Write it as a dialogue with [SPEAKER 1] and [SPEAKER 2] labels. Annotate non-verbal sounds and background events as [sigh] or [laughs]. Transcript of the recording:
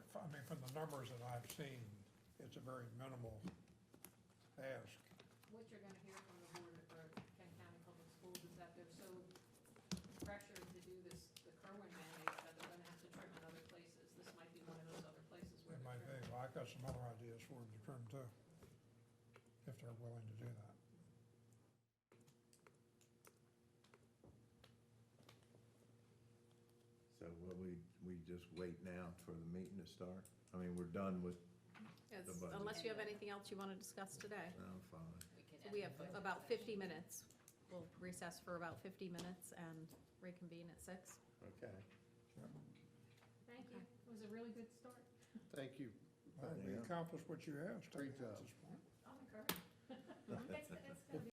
[SPEAKER 1] the numbers that I've seen, it's a very minimal ask.
[SPEAKER 2] what you're gonna hear from the board or Kent County Public Schools is that they're so pressured to do this, the Kerwin mandate, that they're gonna have to trim in other places. This might be one of those other places
[SPEAKER 1] It
[SPEAKER 2] where they're
[SPEAKER 1] might
[SPEAKER 2] trimming.
[SPEAKER 1] be, well, I've got some other ideas for them to trim too, if they're willing to do that.
[SPEAKER 3] So will we, we just wait now for the meeting to start? I mean, we're done with,
[SPEAKER 4] Yes,
[SPEAKER 3] The budget.
[SPEAKER 4] Unless you have anything else you want to discuss today.
[SPEAKER 3] no, fine.
[SPEAKER 4] So We have about fifty minutes. We'll recess for about fifty minutes and reconvene at six.
[SPEAKER 3] Okay.
[SPEAKER 2] Thank you. It was a really good start.
[SPEAKER 5] Thank you.
[SPEAKER 1] Well, we
[SPEAKER 3] Yeah.
[SPEAKER 1] accomplished what you asked, I
[SPEAKER 5] Great
[SPEAKER 1] think, at
[SPEAKER 2] [laughs]
[SPEAKER 5] job.
[SPEAKER 1] this point.
[SPEAKER 2] I'm encouraged. It's, it's gonna be